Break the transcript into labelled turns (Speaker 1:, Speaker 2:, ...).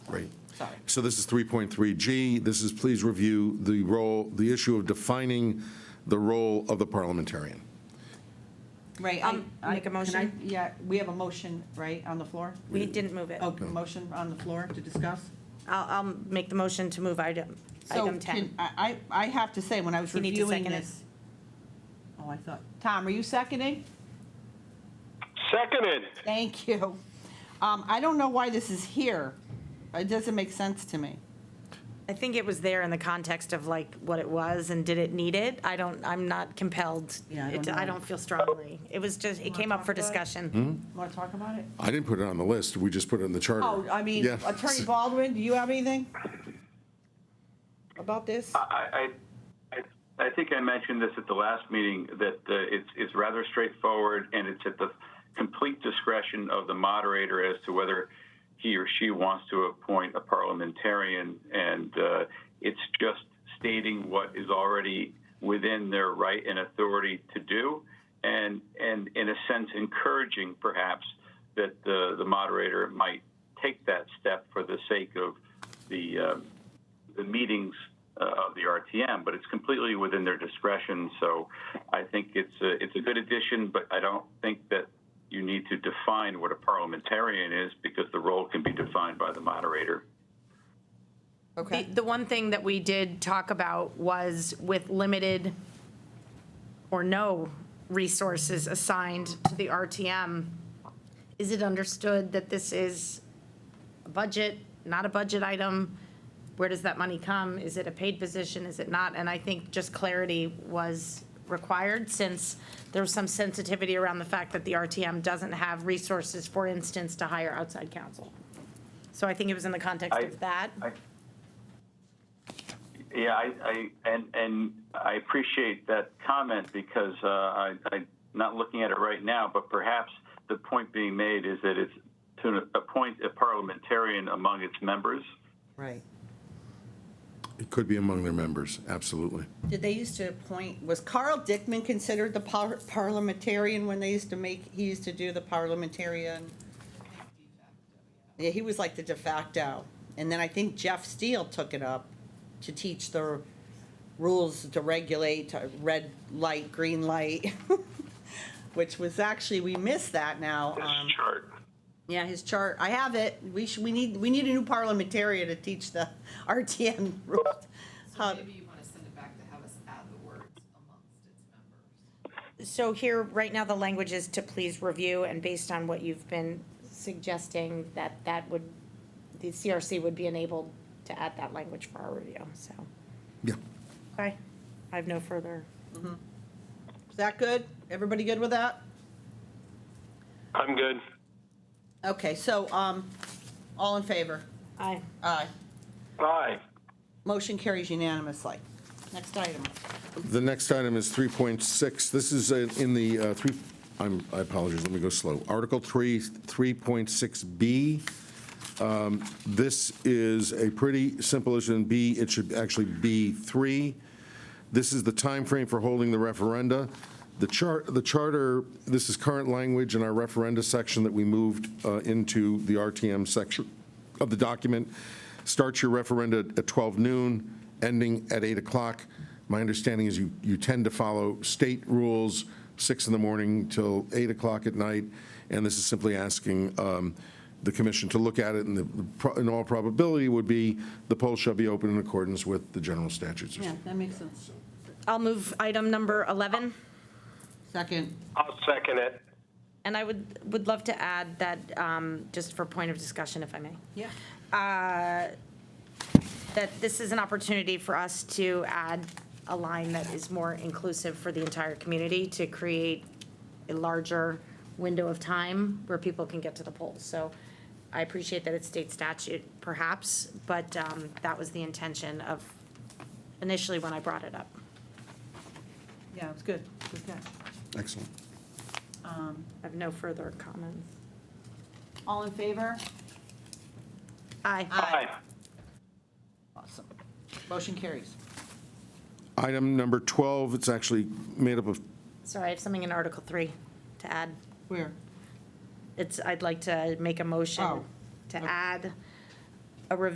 Speaker 1: Sorry.
Speaker 2: So this is 3.3G. This is, please review the role, the issue of defining the role of the parliamentarian.
Speaker 1: Right. I-
Speaker 3: Um,
Speaker 1: I-
Speaker 3: make a
Speaker 1: can I-
Speaker 3: motion?
Speaker 1: Yeah, we have a motion, right, on the floor?
Speaker 3: We didn't move it.
Speaker 1: Oh,
Speaker 3: I'll,
Speaker 1: motion on the floor to discuss?
Speaker 3: I'll make the motion to move item, item
Speaker 1: So can-
Speaker 3: 10.
Speaker 1: I, I I have to say, when I was
Speaker 3: You need to
Speaker 1: reviewing
Speaker 3: second it.
Speaker 1: this. Oh, I thought, Tom, are you seconding?
Speaker 4: Seconded.
Speaker 1: Thank you. Um, I don't know why this is here. It doesn't make sense to me.
Speaker 3: I think it was there in the context of like what it was and did it need it? I don't, I'm not compelled.
Speaker 1: Yeah, I
Speaker 3: It-
Speaker 1: don't know.
Speaker 3: I don't feel strongly. It was just, it came up for discussion.
Speaker 1: Want to talk about it?
Speaker 2: I didn't put it on the list. We just put it in the charter.
Speaker 1: Oh, I mean,
Speaker 2: Yeah.
Speaker 1: Attorney Baldwin, do you have anything about this?
Speaker 5: I, I, I I think I mentioned this at the last meeting, that uh, it's, it's rather straightforward, and it's at the complete discretion of the moderator as to whether he or she wants to appoint a parliamentarian, and uh, it's just stating what is already within their right and authority to do, and, and in a sense, encouraging perhaps that the, the moderator might take that step for the sake of the, um, the meetings uh, of the RTM, but it's completely within their discretion. So I think it's a, it's a good addition, but I don't think that you need to define what a parliamentarian is because the role can be defined by the moderator.
Speaker 3: The, the one thing that we did talk about was with limited or no resources assigned to the RTM, is it understood that this is a budget, not a budget item? Where does that money come? Is it a paid position? Is it not? And I think just clarity was required since there was some sensitivity around the fact that the RTM doesn't have resources, for instance, to hire outside counsel. So I think it was in the context
Speaker 5: I-
Speaker 3: of that.
Speaker 5: I- Yeah, I, I, and, and I appreciate that comment because uh, I, I'm not looking at it right now, but perhaps the point being made is that it's to appoint a parliamentarian among its members.
Speaker 1: Right.
Speaker 2: It could be among their members, absolutely.
Speaker 1: Did they used to appoint, was Carl Dickman considered the par- parliamentarian when they used to make, he used to do the parliamentarian? Yeah, he was like the de facto. And then I think Jeff Steele took it up to teach the rules to regulate, to red light, green light, which was actually, we miss that now. um,
Speaker 5: chart.
Speaker 1: Yeah, his chart, I have it. We should, we need, we need a new parliamentarian to teach the RTM rules. How-
Speaker 6: So maybe you want to send it back to have us add the words amongst its members.
Speaker 3: So here, right now, the language is to please review, and based on what you've been suggesting, that that would, the CRC would be enabled to add that language for our review, so.
Speaker 2: Yeah.
Speaker 3: Okay, I have no further.
Speaker 1: Is that good? Everybody good with that?
Speaker 4: I'm good.
Speaker 1: Okay, so, um, all in favor?
Speaker 3: Aye.
Speaker 1: Aye.
Speaker 4: Aye.
Speaker 1: Motion carries unanimously. Next item.
Speaker 2: The next item is 3.6. This is uh, in the, uh, three, I'm, I apologize, let me go slow. Article 3, 3.6B. Um, This is a pretty simple issue in B. It should actually be 3. This is the timeframe for holding the referenda. The chart, the charter, this is current language in our referenda section that we moved uh, into the RTM section of the document. Start your referenda at 12 noon, ending at 8 o'clock. My understanding is you, you tend to follow state rules, 6 in the morning till 8 o'clock at night, and this is simply asking um, the commission to look at it, and the- the, in all probability would be, the poll shall be open in accordance with the general statutes or something.
Speaker 1: that makes sense.
Speaker 3: I'll move item number 11,
Speaker 1: Second.
Speaker 4: I'll second it.
Speaker 3: and I would, would love to add that, um, just for point of discussion, if I may.
Speaker 1: Yeah.
Speaker 3: that this is an opportunity for us to add a line that is more inclusive for the entire community to create a larger window of time where people can get to the polls. So I appreciate that it's state statute perhaps, but um, that was the intention of initially when I brought it up.
Speaker 1: Yeah, it's good. Good catch.
Speaker 2: Excellent.
Speaker 3: I have no further comments.
Speaker 1: All in favor?
Speaker 3: Aye.
Speaker 4: Aye.
Speaker 1: Awesome. Motion carries.
Speaker 2: Item number 12, it's actually made up of,
Speaker 3: Sorry, I have something in Article 3 to add.
Speaker 1: Where?
Speaker 3: It's, I'd like to make a motion
Speaker 1: Oh.
Speaker 3: to add